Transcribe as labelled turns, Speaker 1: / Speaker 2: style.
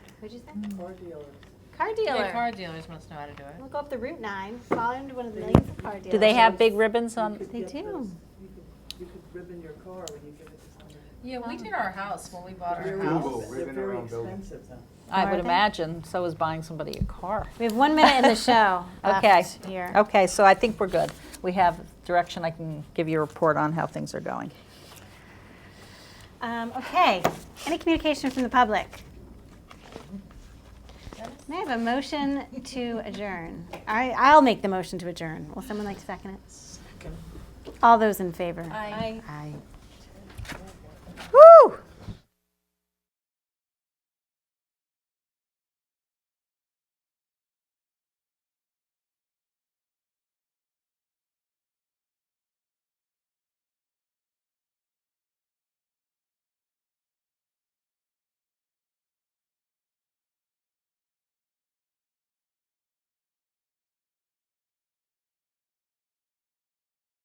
Speaker 1: Who'd you say?
Speaker 2: Car dealers.
Speaker 1: Car dealer.
Speaker 3: Yeah, car dealers must know how to do it.
Speaker 1: We'll go up the Route 9, fall into one of the millions of car dealers.
Speaker 4: Do they have big ribbons
Speaker 2: You
Speaker 4: on?
Speaker 2: could
Speaker 1: They
Speaker 2: get
Speaker 1: do.
Speaker 2: those- You could, you could ribbon your car when you give it to somebody.
Speaker 3: Yeah, we did our house when we bought our
Speaker 2: Very
Speaker 3: house.
Speaker 2: expen- They're
Speaker 5: ribbon
Speaker 2: very
Speaker 5: around building.
Speaker 2: expensive though.
Speaker 4: I
Speaker 1: Are
Speaker 4: would
Speaker 1: they?
Speaker 4: imagine, so is buying somebody a car.
Speaker 1: We have one minute in the show
Speaker 4: Okay, Oh.
Speaker 1: left here.
Speaker 4: okay, so I think we're good. We have direction, I can give you a report on how things are going.
Speaker 1: Um, okay. Any communication from the public? May I have a motion to adjourn? I, I'll make the motion to adjourn. Will someone like to second it? All those in favor?
Speaker 3: Aye.
Speaker 1: Aye.